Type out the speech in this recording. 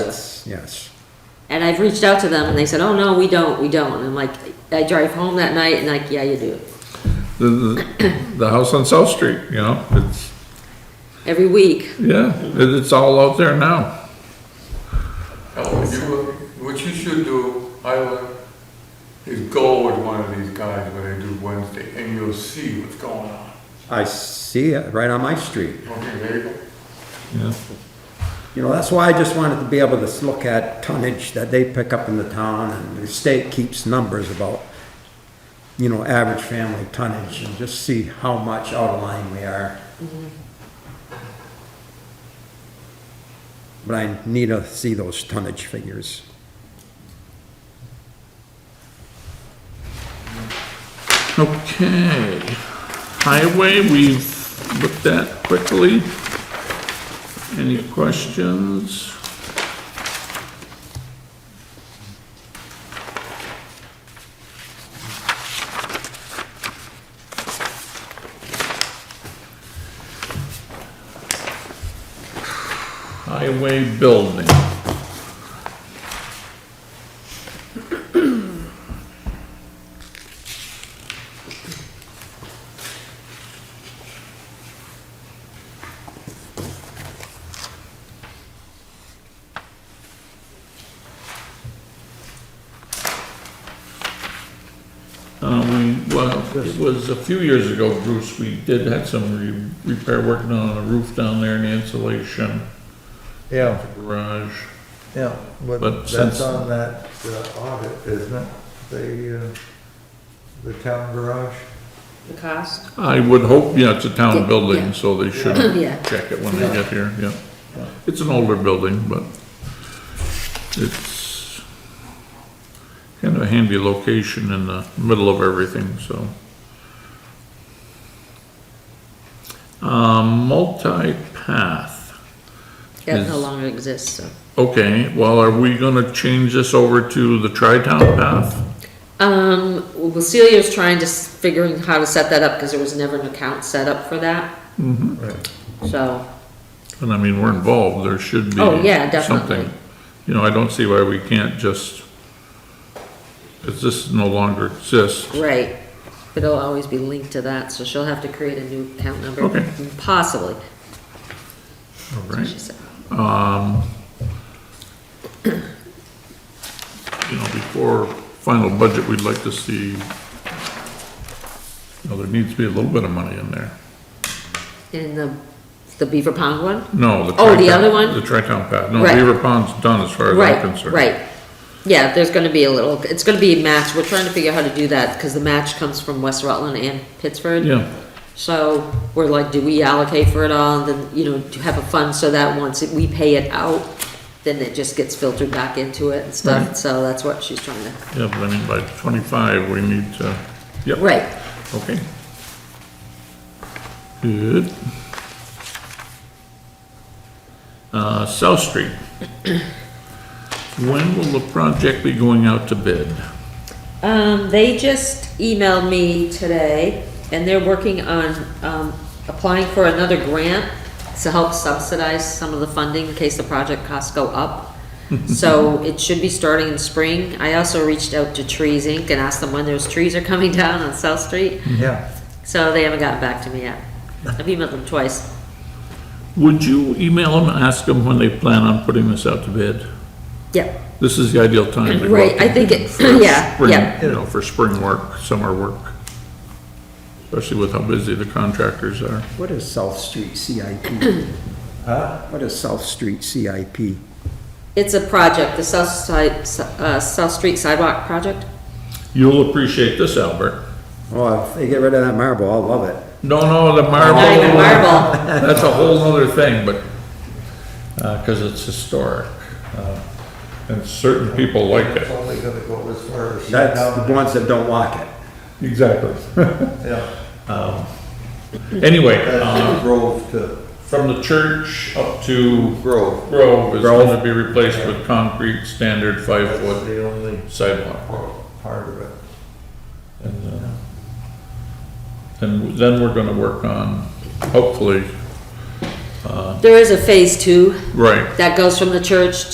yes. And I've reached out to them and they said, oh, no, we don't, we don't. And I'm like, I drive home that night and like, yeah, you do. The, the, the house on South Street, you know, it's, Every week. yeah, it- it's all out there now. Oh, you, what you should do, I would, is go with one of these guys when they do Wednesday, and you'll see what's going on. I see it right on my street. Okay, there you go. Yeah, You know, that's why I just wanted to be able to s- look at tonnage that they pick up in the town, and the state keeps numbers about, you know, average family tonnage, and just see how much out of line we are. But I need to see those tonnage figures. okay. Highway, we've looked at quickly. Any questions? Highway building. Um, we, well, it was a few years ago, Bruce, we did have some re- repair work done on a roof down there and the insulation, Yeah, garage. yeah, But but since- that's on that uh, audit, isn't it? The, uh, the town garage? The cost? I would hope, yeah, it's a Yeah, town yeah. building, so they should Yeah. check it when they get here, yeah. It's an older building, but it's kind of a handy location in the middle of everything, so. Um, multi-path. That no Yes. longer exists, so. Okay, well, are we gonna change this over to the tri-town path? Um, well, Celia's trying to, s- figuring how to set that up because there was never an account set up for that. Mm-hmm. So, And I mean, we're involved, there should be Oh, yeah, definitely. something. You know, I don't see why we can't just, because this no longer exists. right, it'll always be linked to that, so she'll have to create a new account number. Okay. Possibly, All that's what she right, said. you know, before final budget, we'd like to see, you know, there needs to be a little bit of money in there. In the, the Beaver Pond one? No, the. Oh, the tri-town- other one? The tri-town path, no, Right. Beaver Pond's done as far as I'm Right, concerned. right. Yeah, there's gonna be a little, it's gonna be a match, we're trying to figure out how to do that, because the match comes from West Rutland and Pittsford. Yeah. So, we're like, do we allocate for it all, and then, you know, to have a fund so that once we pay it out, then it just gets filtered back into it and stuff, Right. so that's what she's trying to, Yeah, but I mean, by 25, we need to, yep. right. Okay. Good. Uh, South Street. When will the project be going out to bid? Um, they just emailed me today, and they're working on, um, applying for another grant to help subsidize some of the funding in case the project costs go up. So it should be starting in spring. I also reached out to Trees Inc. and asked them when those trees are coming down on South Street, Yeah. so they haven't gotten back to me yet. I've emailed them twice. Would you email them and ask them when they plan on putting this out to bid? Yep, This is the ideal time to go out Right, to I think bid it- for yeah, spring, yeah. You know, for spring work, summer work, especially with how busy the contractors are. What is South Street CIP? Huh? What is South Street CIP? it's a project, the South Side, uh, South Street Sidewalk Project. You'll appreciate this, Albert. Oh, if they get rid of that marble, I'll love it. No, no, the Not even marble. That's a whole other thing, but, uh 'cause cause it's historic, uh, and certain people like It's it. only gonna go as far as. That's the ones that don't like it. Exactly. Yeah, Anyway, um, that's Grove to from the church up to Grove. Grove is Grove. gonna be replaced with concrete standard That's five-foot the only sidewalk. part of it. And, uh, and then we're gonna work on, hopefully, There is a phase two right, that goes from the church